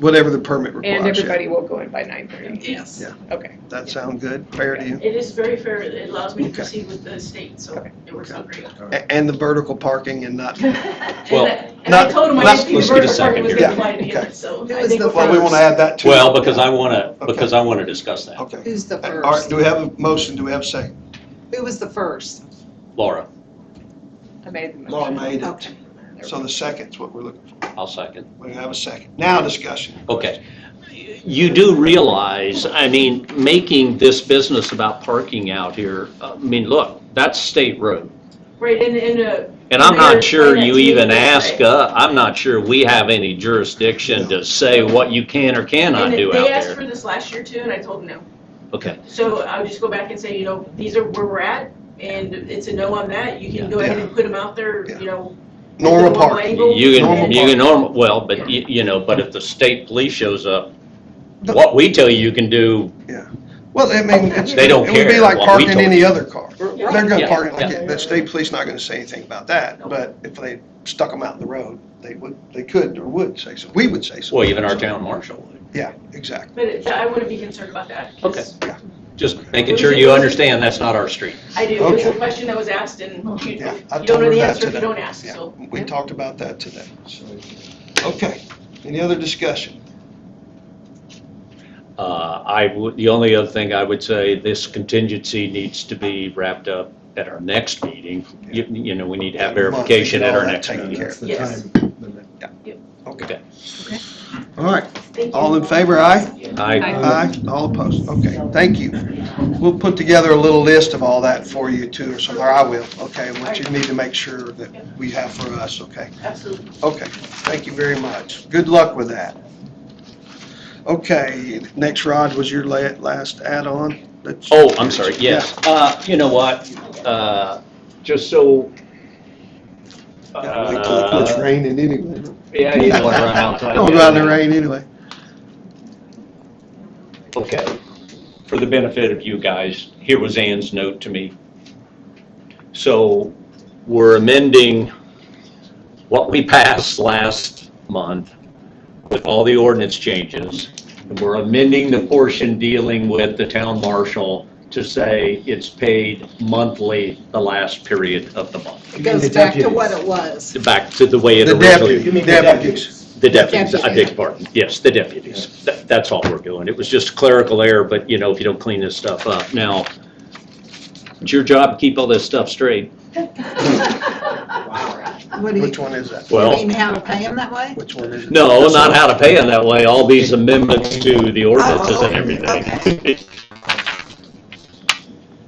whatever the permit requires. And yeah. everybody will go in by nine thirty? Yes. Yeah. Okay. That sound good, fair to you? It is very fair, it allows me to Okay. proceed with the state, so Okay. it works out great. A- And the vertical parking and not, And Well, I- and I not- told him I not- didn't think Let's the get vertical a part second was here. gonna apply to Yeah, it, so okay. I think we're. well, we want to add that too. Well, because I want to, because I wanted to discuss that. Okay. Who's the All right, first? do we have a motion, do we have a second? Who was the first? Laura, I made the motion. Laura made it, Okay. so the second's what we're looking, I'll second. we have a second. Now discussion. Okay. You do realize, I mean, making this business about parking out here, uh, I mean, look, that's state road. Right, and, and, uh, And I'm not Mayor, sure explain that you to me even this ask, way. uh, I'm not sure we have any jurisdiction to say what you can or cannot and do out they asked there. for this last year too, and I told them no. Okay, So I'll just go back and say, you know, these are where we're at, and it's a no on that, you Yeah. can go ahead and put them out there, Yeah. you know. at the Normal normal parking. angle. you Normal can, you parking. can normal, well, but you, you know, but if the state police shows up, what we tell you you can do, Well, I mean, it's. They don't It would be care like what we parking told any other car. Right. They're gonna Yeah, park, it like yeah. it. the state police not gonna say anything about that, Nope. but if they stuck them out in the road, they would, they could or would say so. We would say so. well, even our town marshal would. Yeah, exactly. But it- I wouldn't be concerned about that. 'cause Just making sure you understand that's not our street. I do, it was a Okay. question that was asked, and you you Yeah, I don't told know her the that answer if today. you don't ask, Yeah, so. We talked about that today. so. Okay, any other discussion? Uh, I would, the only other thing I would say, this contingency needs to be wrapped up at our next meeting. You, you know, we need to have verification at our All that next taken meeting. care of. Yes. Okay. Okay. All right, Thank you. all in favor, aye? I, Aye, all opposed, okay, thank you. We'll put together a little list of all that for you too, or something, or I will, okay, what you need to make sure that we have for us, okay? Absolutely. Okay, thank you very much. Good luck with that. Okay, next, Rod, was your la- last add-on? That's- oh, I'm sorry, yes. Uh, you know what, uh, just so. Gotta wait till it quits Uh, raining anyway. Yeah, you don't wanna run outside. Don't run in the rain anyway. Okay. For the benefit of you guys, here was Ann's note to me. So we're amending what we passed last month with all the ordinance changes. And we're amending the portion dealing with the town marshal to say it's paid monthly the last period of the month. It goes back to what it was. Back to the way it The originally. deputy, deputies. The deputies, I Deputies. beg your pardon, yes, the deputies. Tha- That's all we're doing. It was just clerical error, but you know, if you don't clean this stuff up. Now, it's your job to keep all this stuff straight. What do you, Which one is that? you Well- mean how to pay him that way? Which one is it? No, not how to pay them that way, all these amendments to the ordinances and everything.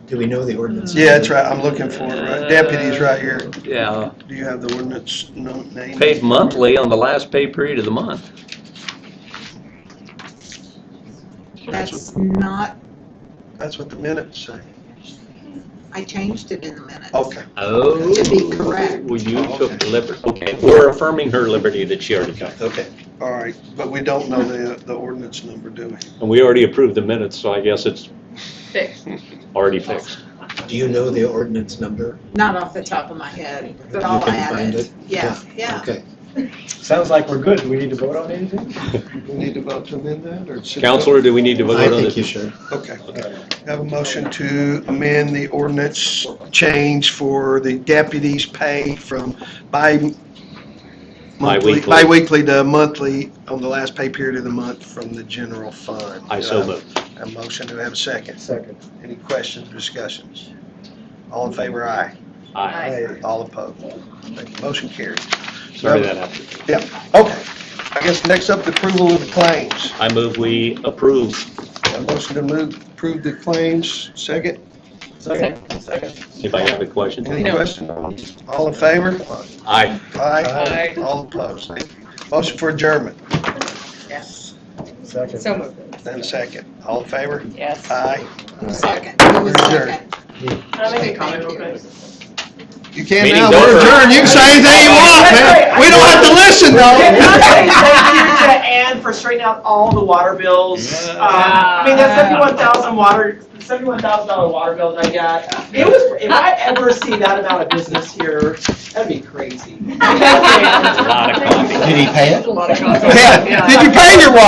Do we know the ordinance? Yeah, that's right, I'm looking for it, right, deputies right here. Yeah, Do you have the ordinance no- name? paid monthly on the last pay period of the month. That's not, That's what the minutes say. I changed it in the minutes. Okay, Oh. To be correct. Well, you took the liberty, okay, we're affirming her liberty that she already took. okay, all right, but we don't know the, the ordinance number, do we? And we already approved the minutes, so I guess it's Fixed. already fixed. Do you know the ordinance number? Not off the top of my head, but You I'll can add find it. it? Yeah, yeah. Okay. Sounds like we're good. Do we need to vote on anything? We need to vote to amend that, or? should- Counselor, do we need to vote I on think you this? should. Okay, have a motion to amend the ordinance change for the deputies' pay from bi- monthly, Bi-weekly. bi-weekly to monthly on the last pay period of the month from the general fund. I so move. A motion, to have a second? Second. Any questions, discussions? All in favor, aye. Aye. All opposed. Thank you. Motion carried. Sorry that happened. Yeah, okay. I guess next up, the approval of the claims. I move we approve. A motion to move, approve the claims, second? Second. Anybody have a question? Any questions? All in favor? Aye. Aye. All opposed. Thank you. Motion for adjournment, Yes. Second. So moved. then second. All in favor? Yes. Uh, Aye. Who Second, who was Adjourned. Can second? I make a comment Thank real you. quick? You can Meeting's now, we're over. adjourned. You can say anything you want, man. We don't have to listen, though. Oh, Thank you, gonna add for straightening out all the water bills. Yeah. Um, I mean, that seventy-one thousand water, seventy-one thousand dollar water bill that I got, it was, if I ever see that amount of business here, that'd be crazy. A lot of coffee. Did he pay it? Yeah, did you pay your water